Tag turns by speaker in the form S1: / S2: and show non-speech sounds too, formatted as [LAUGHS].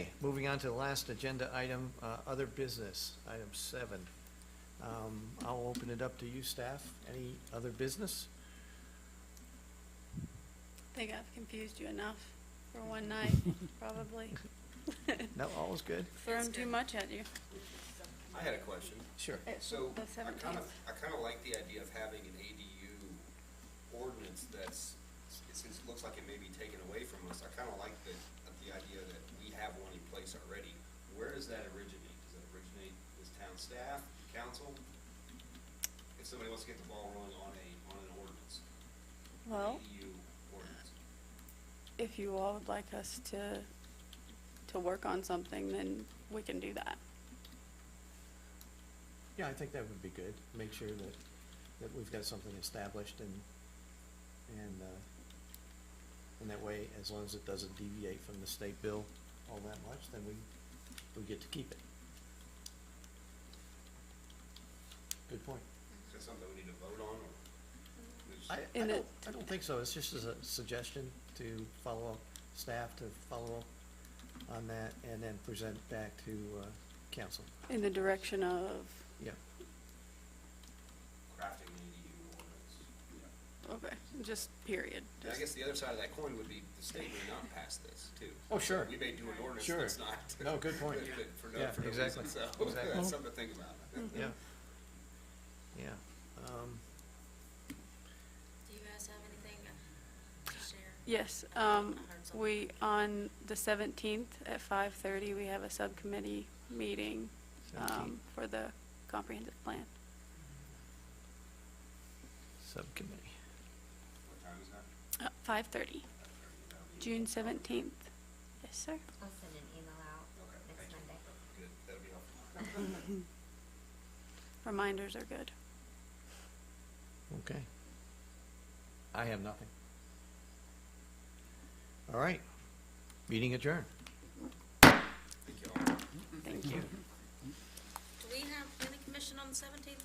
S1: Moving on to the last agenda item, uh, other business, item seven. Um, I'll open it up to you, staff. Any other business?
S2: think I've confused you enough for one night, probably. [LAUGHS]
S1: No, all is good?
S2: Thrown too much at you.
S3: I had a question.
S1: Sure.
S2: It's
S3: So
S2: the
S3: I kind of,
S2: seventeenth.
S3: I kind of like the idea of having an ADU ordinance that's, since it looks like it may be taken away from us, I kind of like the, of the idea that we have one in place already. Where does that originate? Does that originate with town staff, council? If somebody wants to get the ball rolling on a, on an ordinance, an
S2: Well,
S3: ADU ordinance.
S2: if you all would like us to, to work on something, then we can do that.
S1: Yeah, I think that would be good. Make sure that, that we've got something established and, and, uh, and that way, as long as it doesn't deviate from the state bill all that much, then we, we get to keep it. Good point.
S3: Is that something we need to vote on or? we just-
S1: I, I
S2: And
S1: don't,
S2: it-
S1: I don't think so, it's just as a suggestion to follow up, staff to follow up on that, and then present back to, uh, council,
S2: In the direction of,
S1: yeah.
S3: Crafting an ADU ordinance. Yeah.
S2: okay, just period.
S3: And I guess the other side of that coin would be the state may not pass this too.
S1: Oh, sure.
S3: We may do an ordinance
S1: Sure.
S3: that's not.
S1: No, good
S3: [LAUGHS]
S1: point.
S3: that- that For no,
S1: Yeah,
S3: for no
S1: exactly.
S3: reason, so
S1: Exactly.
S3: that's [LAUGHS] something to think about.
S1: Yeah. Yeah, um,
S4: Do you guys have anything to share?
S2: Yes, um, we, on the seventeenth at five-thirty, we have a subcommittee meeting, um,
S1: 17th.
S2: for the comprehensive plan.
S1: subcommittee,
S3: What time is that?
S2: Uh, five-thirty, June seventeenth. Yes, sir.
S4: I'll send an email out
S3: Okay,
S4: next
S3: thank you.
S4: Monday.
S3: Good, that'll be helpful.
S2: Reminders are good.
S1: okay. I have nothing. All right, meeting adjourned.
S3: Thank you all.
S2: Thank you.
S4: Do we have planning commission on the seventeenth?